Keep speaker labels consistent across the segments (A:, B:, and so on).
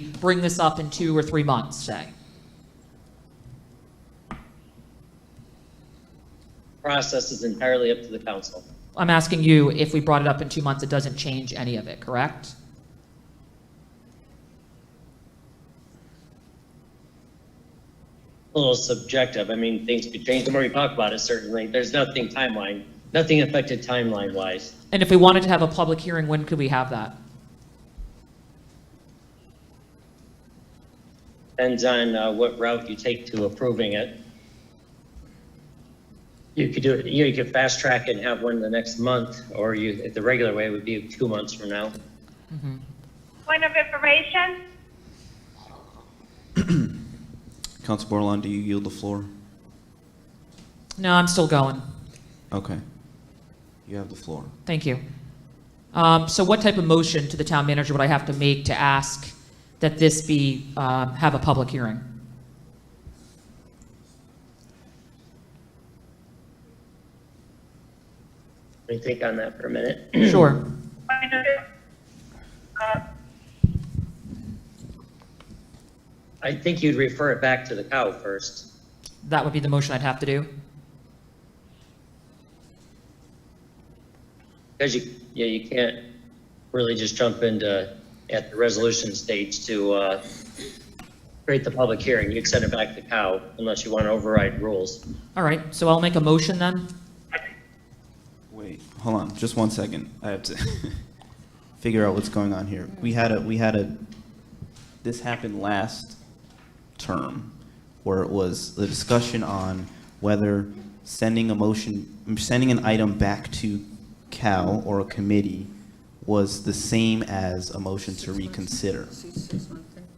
A: bring this up in two or three months, say?
B: Process is entirely up to the council.
A: I'm asking you, if we brought it up in two months, it doesn't change any of it, correct?
B: A little subjective. I mean, things could change the more we talk about it, certainly. There's nothing timeline, nothing affected timeline wise.
A: And if we wanted to have a public hearing, when could we have that?
B: Depends on uh, what route you take to approving it. You could do it, you know, you could fast track it and have one the next month, or you, the regular way would be two months from now.
C: Point of information?
D: Council Borland, do you yield the floor?
A: No, I'm still going.
D: Okay. You have the floor.
A: Thank you. Um, So what type of motion to the town manager would I have to make to ask that this be, um, have a public hearing?
B: Let me think on that for a minute.
A: Sure.
C: Point of, uh,
B: I think you'd refer it back to the cow first.
A: That would be the motion I'd have to do?
B: Because you, yeah, you can't really just jump into, at the resolution stage to, uh, create the public hearing. You'd send it back to COW unless you want to override rules.
A: All right, so I'll make a motion then?
D: Wait, hold on, just one second. I have to figure out what's going on here. We had a, we had a, this happened last term, where it was the discussion on whether sending a motion, sending an item back to Cal or a committee was the same as a motion to reconsider.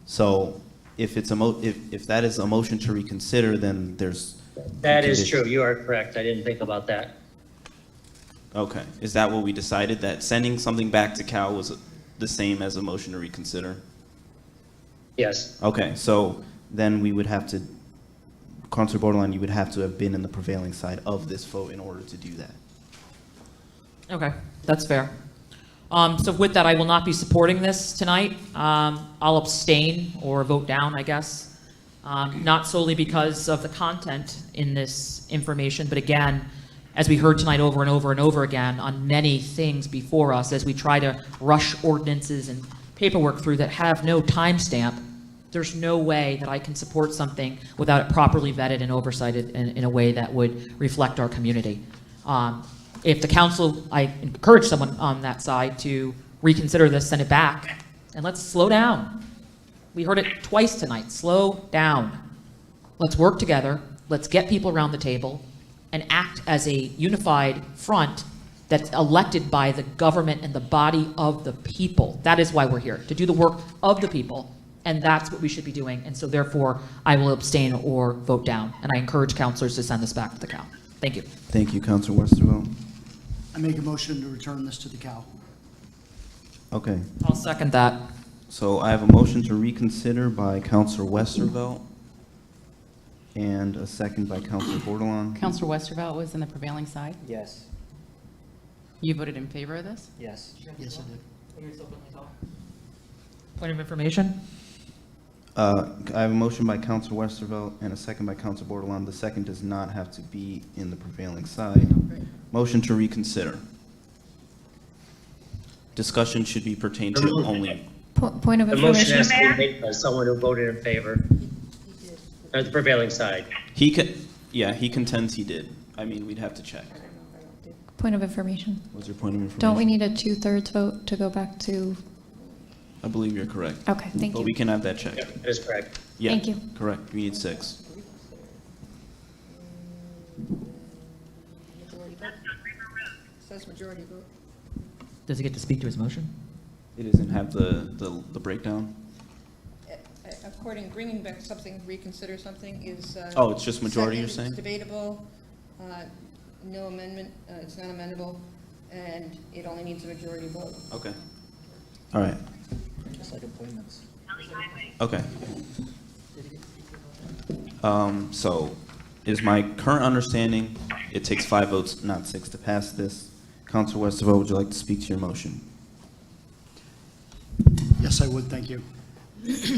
D: So if it's a mo, if, if that is a motion to reconsider, then there's.
B: That is true. You are correct. I didn't think about that.
D: Okay, is that what we decided, that sending something back to Cal was the same as a motion to reconsider?
B: Yes.
D: Okay, so then we would have to, Counselor Borderline, you would have to have been in the prevailing side of this vote in order to do that.
A: Okay, that's fair. Um, So with that, I will not be supporting this tonight. Um, I'll abstain or vote down, I guess, Um, not solely because of the content in this information, but again, as we heard tonight over and over and over again on many things before us, as we try to rush ordinances and paperwork through that have no timestamp, there's no way that I can support something without it properly vetted and oversighted in, in a way that would reflect our community. Um, If the council, I encourage someone on that side to reconsider this, send it back, and let's slow down. We heard it twice tonight, slow down. Let's work together, let's get people around the table, and act as a unified front that's elected by the government and the body of the people. That is why we're here, to do the work of the people, and that's what we should be doing. And so therefore, I will abstain or vote down, and I encourage counselors to send this back to the cow. Thank you.
D: Thank you, Counselor Westervelt.
E: I make a motion to return this to the Cal.
D: Okay,
A: I'll second that.
D: so I have a motion to reconsider by Counselor Westervelt and a second by Counselor Bordelon.
F: Counselor Westervelt was in the prevailing side.
G: Yes,
F: You voted in favor of this?
G: yes.
E: Yes, I did.
A: Point of information?
D: Uh, I have a motion by Counselor Westervelt and a second by Counselor Bordelon. The second does not have to be in the prevailing side. Motion to reconsider. Discussion should be pertained to only,
H: Po- Point of
B: The motion
H: information,
B: has to be made by someone who voted in favor. Or the prevailing side.
D: he could, yeah, he contends he did. I mean, we'd have to check.
H: point of information.
D: What's your point of information?
H: Don't we need a two-thirds vote to go back to,
D: I believe you're correct.
H: okay, thank
D: But we
H: you.
D: can have that checked.
B: Yep, That is correct.
D: Yeah,
H: Thank you.
D: Correct, we need six.
A: Does he get to speak to his motion?
D: It doesn't have the, the the breakdown?
I: eh, According, bringing back something, reconsider something is. uh,
D: Oh, it's just majority, you're
I: second,
D: saying?
I: It's debatable, uh, no amendment, uh, it's not amendable, and it only needs a majority vote.
D: Okay. All right,
G: Just like appointments.
D: Okay. Um, so, is my current understanding, it takes five votes, not six, to pass this. Counsel Westervelt, would you like to speak to your motion?
E: Yes, I would, thank you.